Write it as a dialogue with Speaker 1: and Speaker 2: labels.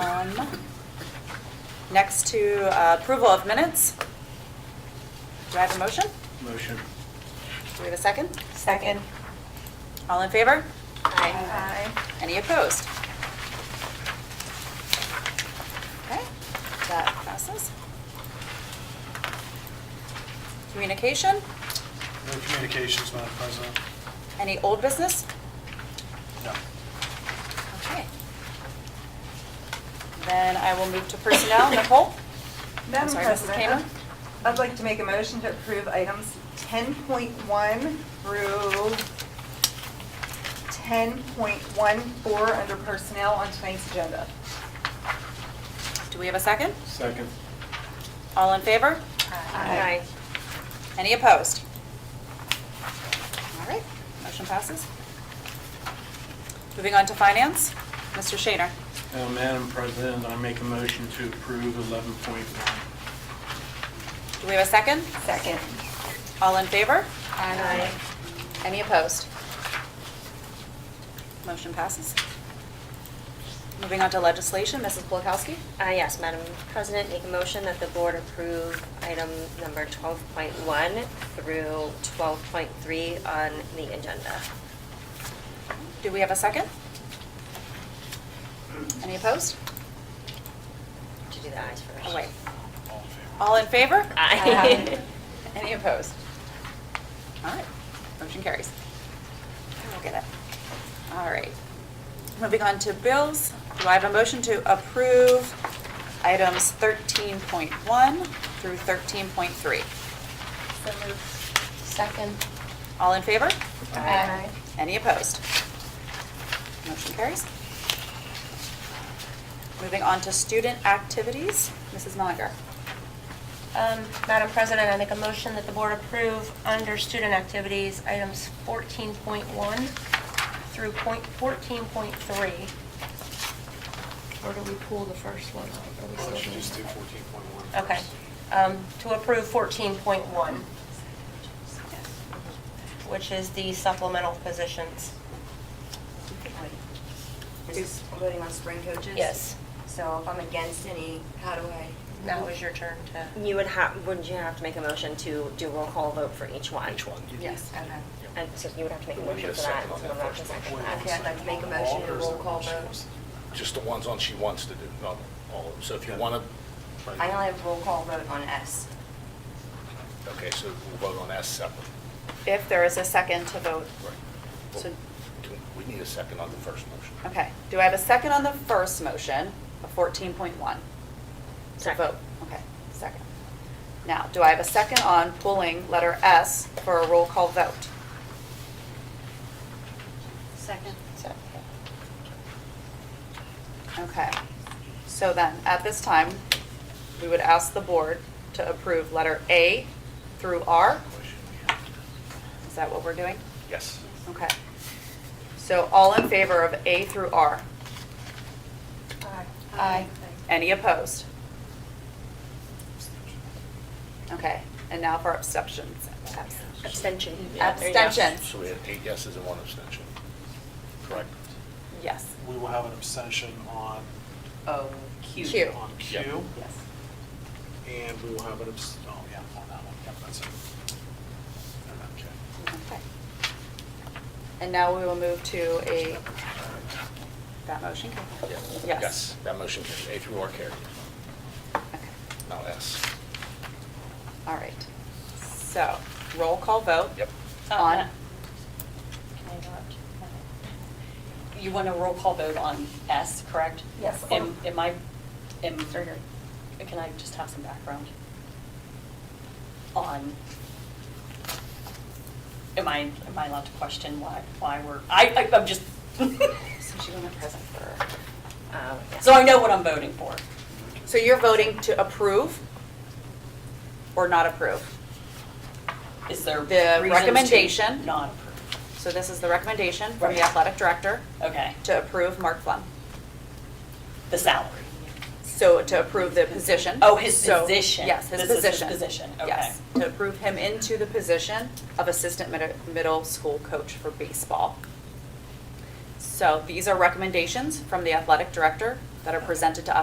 Speaker 1: M. Um, Next to uh, approval of minutes. Do I have a motion?
Speaker 2: Motion.
Speaker 1: Do we have a second?
Speaker 3: Second.
Speaker 1: All in favor?
Speaker 3: Aye.
Speaker 1: Any opposed? Okay, that passes. Communication,
Speaker 2: No communications, Madam President?
Speaker 1: any old business?
Speaker 2: No.
Speaker 1: Okay. Then I will move to personnel. Nicole? I'm
Speaker 3: Madam
Speaker 1: sorry, Mrs. Kamer?
Speaker 3: President, I'd like to make a motion to approve items 10.1 through 10.14 under personnel on tonight's agenda.
Speaker 1: Do we have a second?
Speaker 2: Second.
Speaker 1: All in favor?
Speaker 3: Aye.
Speaker 1: Any opposed? All right, motion passes. Moving on to finance, Mr. Shaner.
Speaker 2: Uh, Madam President, I make a motion to approve 11.1.
Speaker 1: Do we have a second?
Speaker 3: Second.
Speaker 1: All in favor?
Speaker 3: Aye.
Speaker 1: Any opposed? Motion passes. Moving on to legislation, Mrs. Polakowski.
Speaker 4: Uh, Yes, Madam President, make a motion that the board approve item number 12.1 through 12.3 on the agenda.
Speaker 1: Do we have a second? Any opposed?
Speaker 4: To do the ayes first.
Speaker 1: Oh, wait.
Speaker 2: All in favor?
Speaker 1: All in favor?
Speaker 4: Aye.
Speaker 1: Any opposed? All right, motion carries. I will get it. All right. Moving on to bills, do I have a motion to approve items 13.1 through 13.3?
Speaker 3: So moved.
Speaker 5: Second.
Speaker 1: All in favor?
Speaker 5: Aye.
Speaker 1: Any opposed? Motion carries. Moving on to student activities, Mrs. Mellinger.
Speaker 5: Um, Madam President, I make a motion that the board approve under student activities, items 14.1 through point 14.3. Or do we pull the first one? Are we
Speaker 2: Well,
Speaker 5: still
Speaker 2: let's just do
Speaker 5: doing-
Speaker 2: 14.1.
Speaker 5: Okay. Um, To approve 14.1, which is the supplemental positions.
Speaker 6: Is this voting on spring coaches?
Speaker 5: Yes.
Speaker 6: So if I'm against any, how do I?
Speaker 5: Now is your turn to.
Speaker 4: You would have, wouldn't you have to make a motion to do roll call vote for each one?
Speaker 2: Each one.
Speaker 1: Yes.
Speaker 6: Okay.
Speaker 4: And so you would have to make a
Speaker 7: We need
Speaker 4: motion
Speaker 7: a
Speaker 4: for that,
Speaker 7: second on
Speaker 4: so
Speaker 7: that
Speaker 4: I'm not
Speaker 7: first
Speaker 4: going to second
Speaker 7: motion.
Speaker 4: that.
Speaker 6: Okay, I'd like to make a motion to roll call vote.
Speaker 7: Just the ones on she wants to do, not all of them. So if you want to.
Speaker 6: I only have roll call vote on S.
Speaker 7: Okay, so we'll vote on S separate.
Speaker 1: If there is a second to vote.
Speaker 7: Right.
Speaker 1: So- Oh.
Speaker 7: We need a second on the first motion.
Speaker 1: Okay, do I have a second on the first motion of 14.1? To
Speaker 4: Second.
Speaker 1: vote, okay, second. Now, do I have a second on pulling letter S for a roll call vote?
Speaker 6: Second.
Speaker 1: So- Okay, so then, at this time, we would ask the board to approve letter A through R? Is that what we're doing?
Speaker 7: Yes.
Speaker 1: Okay. So all in favor of A through R?
Speaker 5: Aye.
Speaker 1: Any opposed? Okay, and now for abstentions. Abs-
Speaker 4: Abstention. Yeah, there you go.
Speaker 1: Abstentions,
Speaker 7: So we had eight yeses and one abstention. Correct?
Speaker 1: yes.
Speaker 2: We will have an abstention on,
Speaker 6: O,
Speaker 1: Q.
Speaker 2: on
Speaker 7: Yeah.
Speaker 2: Q,
Speaker 1: Yes.
Speaker 2: and we will have an abst, oh, yeah, on that one. Yep, that's it. Okay.
Speaker 1: Okay. And now we will move to a, that motion?
Speaker 7: Yeah.
Speaker 1: Yes.
Speaker 7: That motion carries. A through R carries,
Speaker 1: Okay.
Speaker 7: not S.
Speaker 1: All right. So, roll call vote.
Speaker 7: Yep.
Speaker 1: On,
Speaker 8: Can Uh, I interrupt? You want a roll call vote on S, correct?
Speaker 3: Yes.
Speaker 8: Am am I, am, can I just have some background? On, am I, am I allowed to question why, why we're, I, I- I'm just,
Speaker 1: since you weren't present for,
Speaker 4: Uh, yes.
Speaker 8: so I know what I'm voting for.
Speaker 1: so you're voting to approve or not approve?
Speaker 8: Is there
Speaker 1: The
Speaker 8: reasons to
Speaker 1: recommendation.
Speaker 8: Not approve.
Speaker 1: So this is the recommendation from
Speaker 8: Right.
Speaker 1: the athletic director
Speaker 8: Okay,
Speaker 1: to approve Mark Flum.
Speaker 8: the salary.
Speaker 1: So to approve the position.
Speaker 8: Oh, his
Speaker 1: So-
Speaker 8: position.
Speaker 1: Yes, his
Speaker 8: This is his
Speaker 1: position.
Speaker 8: position,
Speaker 1: Yes, to approve him into the position of assistant mid- middle school coach for baseball. So these are recommendations from the athletic director that are presented to us.